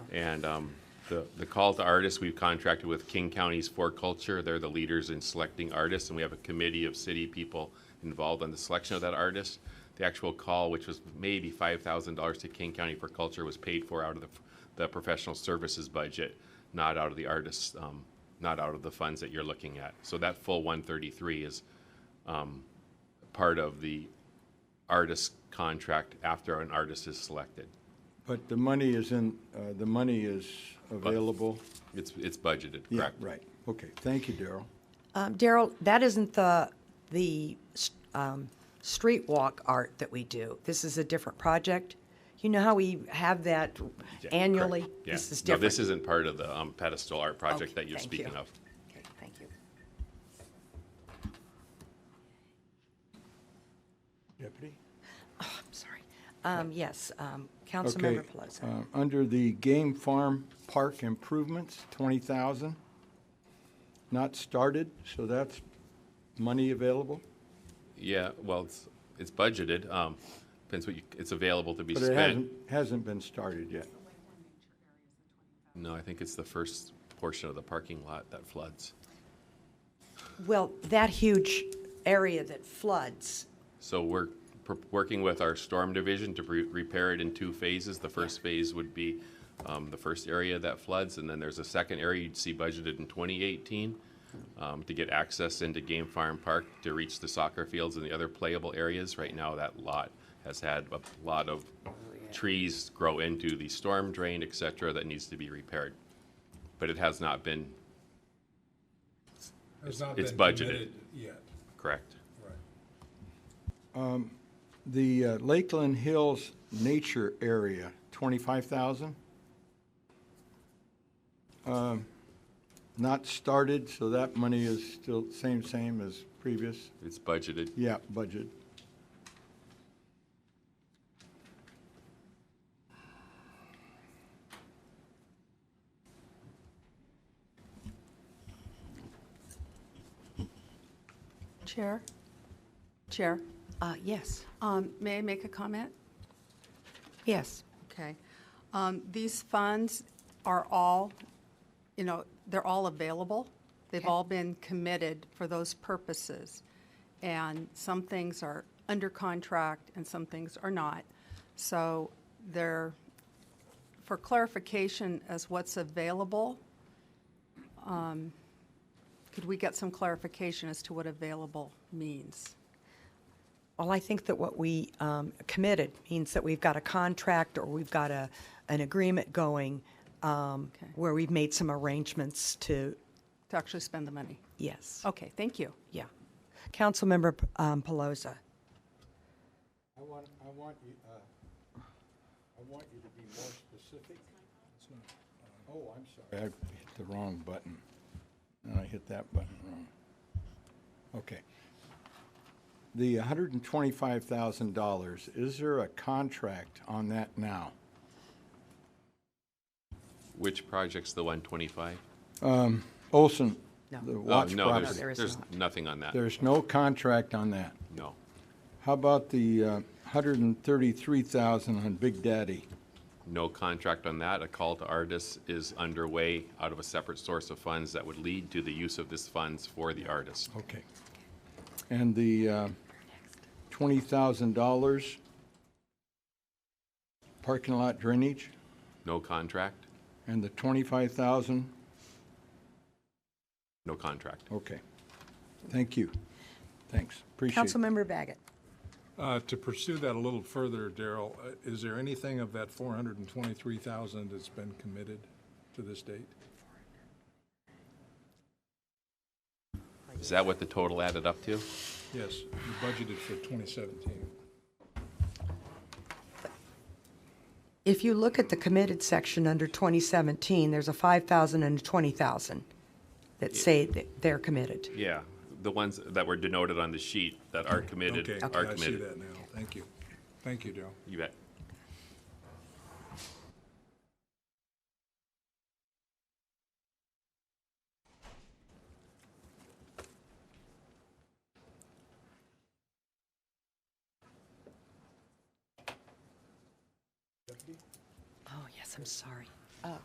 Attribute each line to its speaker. Speaker 1: And um, the, the call to artists, we've contracted with King County's For Culture. They're the leaders in selecting artists, and we have a committee of city people involved in the selection of that artist. The actual call, which was maybe five thousand dollars to King County for Culture, was paid for out of the, the professional services budget, not out of the artists, um, not out of the funds that you're looking at. So that full one thirty-three is um, part of the artist contract after an artist is selected.
Speaker 2: But the money is in, uh, the money is available?
Speaker 1: It's, it's budgeted,
Speaker 2: Yeah,
Speaker 1: correct?
Speaker 2: right. Okay, thank you, Daryl.
Speaker 3: Um, Daryl, that isn't the, the s- um, street walk art that we do. This is a different project. You know how we have that
Speaker 1: Yeah, correct.
Speaker 3: annually?
Speaker 1: Yeah.
Speaker 3: This is
Speaker 1: No,
Speaker 3: different.
Speaker 1: this isn't part of the um, pedestal art project
Speaker 3: Okay,
Speaker 1: that you're
Speaker 3: thank you.
Speaker 1: speaking of.
Speaker 3: Okay, Thank you.
Speaker 2: Deputy?
Speaker 3: I'm sorry. Um, Yes, um, Councilmember Pelosi.
Speaker 2: uh, Under the game farm park improvements, 20,000. Not started, so that's money available?
Speaker 1: Yeah, well, it's, it's budgeted, um, depends what you, it's available to be
Speaker 2: But it
Speaker 1: spent.
Speaker 2: hasn't, hasn't been started yet.
Speaker 1: No, I think it's the first portion of the parking lot that floods.
Speaker 3: Well, that huge area that floods,
Speaker 1: So we're pr- working with our storm division to re- repair it in two phases. The first phase would be um, the first area that floods, and then there's a second area you'd see budgeted in 2018 um, to get access into Game Farm Park to reach the soccer fields and the other playable areas. Right now, that lot has had a lot of
Speaker 3: Oh,
Speaker 1: trees grow into the storm drain, et cetera, that needs to be repaired. But it has not been
Speaker 4: It's not
Speaker 1: it's
Speaker 4: been
Speaker 1: budgeted.
Speaker 4: committed Yet,
Speaker 1: correct.
Speaker 4: right.
Speaker 2: The uh, Lakeland Hills Nature Area, 25,000. Um, Not started, so that money is still same, same as previous.
Speaker 1: It's budgeted.
Speaker 2: Yeah, budget.
Speaker 5: Chair, Chair,
Speaker 3: uh, yes,
Speaker 5: um, may I make a comment?
Speaker 3: yes.
Speaker 5: Okay. Um, These funds are all, you know, they're all available. They've
Speaker 3: Okay.
Speaker 5: all been committed for those purposes. And some things are under contract and some things are not. So they're, for clarification as what's available, um, could we get some clarification as to what available means?
Speaker 3: Well, I think that what we um, committed means that we've got a contract or we've got a, an agreement going um,
Speaker 5: Okay.
Speaker 3: where we've made some arrangements to,
Speaker 5: To actually spend the money?
Speaker 3: yes,
Speaker 5: Okay, thank you.
Speaker 3: yeah. Councilmember um, Pelosi.
Speaker 2: I want, I want you, uh, I want you to be more specific. Oh, I'm sorry. I hit the wrong button. And I hit that button wrong. Okay. The hundred and twenty-five thousand dollars, is there a contract on that now?
Speaker 1: Which project's the 125?
Speaker 2: Um, Olson,
Speaker 3: No.
Speaker 2: the
Speaker 1: Oh,
Speaker 2: Watts
Speaker 1: no, there's-
Speaker 2: property.
Speaker 3: there is
Speaker 1: There's
Speaker 3: not.
Speaker 1: nothing on that,
Speaker 2: There's no contract on that.
Speaker 1: no.
Speaker 2: How about the uh, hundred and thirty-three thousand on Big Daddy?
Speaker 1: No contract on that. A call to artists is underway out of a separate source of funds that would lead to the use of this funds for the artist.
Speaker 2: Okay. And the uh, $20,000 parking lot drainage
Speaker 1: No contract,
Speaker 2: and the 25,000?
Speaker 1: no contract.
Speaker 2: Okay. Thank you. Thanks. Appreciate it.
Speaker 3: Councilmember Baggett.
Speaker 4: Uh, To pursue that a little further, Daryl, uh, is there anything of that 423,000 that's been committed to this date?
Speaker 1: Is that what the total added up to?
Speaker 4: Yes, you budgeted for 2017.
Speaker 3: If you look at the committed section under 2017, there's a 5,000 and a 20,000 that say that they're committed.
Speaker 1: Yeah, the ones that were denoted on the sheet that are committed
Speaker 4: Okay,
Speaker 1: are
Speaker 4: I see
Speaker 1: committed.
Speaker 4: that now. Thank you. Thank you, Daryl.
Speaker 1: You bet.
Speaker 3: Oh, yes, I'm sorry.